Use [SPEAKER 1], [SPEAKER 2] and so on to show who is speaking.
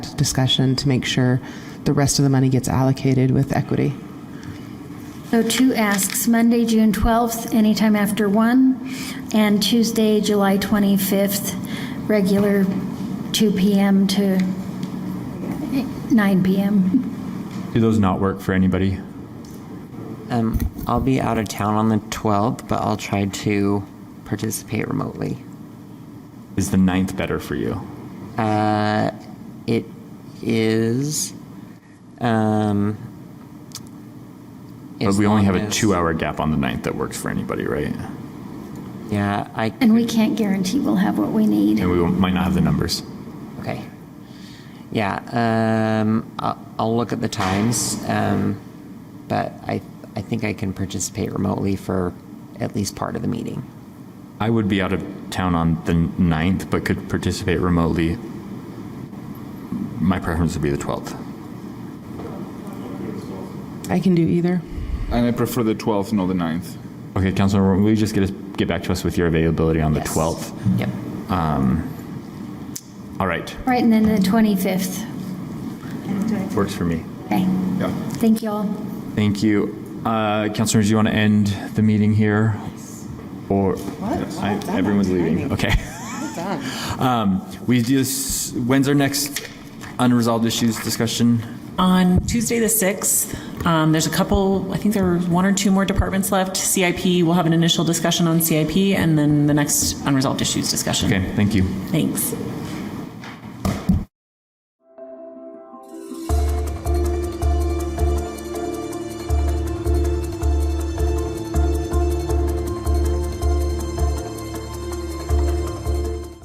[SPEAKER 1] discussion to make sure the rest of the money gets allocated with equity.
[SPEAKER 2] So two asks, Monday, June 12th, anytime after 1, and Tuesday, July 25th, regular 2 PM to 9 PM.
[SPEAKER 3] Do those not work for anybody?
[SPEAKER 4] Um, I'll be out of town on the 12th, but I'll try to participate remotely.
[SPEAKER 3] Is the ninth better for you?
[SPEAKER 4] It is. Um,
[SPEAKER 3] But
[SPEAKER 4] as
[SPEAKER 3] we only
[SPEAKER 4] long
[SPEAKER 3] have a
[SPEAKER 4] as-
[SPEAKER 3] two hour gap on the ninth that works for anybody, right?
[SPEAKER 4] Yeah, I.
[SPEAKER 2] And we can't guarantee we'll have what we need.
[SPEAKER 3] And we won't- might not have the numbers.
[SPEAKER 4] Okay. Yeah, um, I'll, I'll look at the times, um, but I, I think I can participate remotely for at least part of the meeting.
[SPEAKER 3] I would be out of town on the ninth, but could participate remotely. My preference would be the 12th.
[SPEAKER 1] I can do either.
[SPEAKER 5] And I prefer the 12th, not the 9th.
[SPEAKER 3] Okay, Councilor, will you just get, us, get back to us with your availability on the
[SPEAKER 4] Yes.
[SPEAKER 3] 12th?
[SPEAKER 4] Yep.
[SPEAKER 3] All right,
[SPEAKER 2] Right, and then the 25th.
[SPEAKER 3] works for me.
[SPEAKER 2] Okay,
[SPEAKER 5] Yeah.
[SPEAKER 2] thank you all.
[SPEAKER 3] Thank you. Uh, Councilors, you want to end the meeting here? Or I- everyone's leaving. Okay. Um, we do this. When's our next unresolved issues discussion?
[SPEAKER 6] On Tuesday, the 6th, um, there's a couple, I think there are one or two more departments left. CIP, we'll have an initial discussion on CIP, and then the next unresolved issues discussion.
[SPEAKER 3] Okay. Thank you.
[SPEAKER 6] Thanks.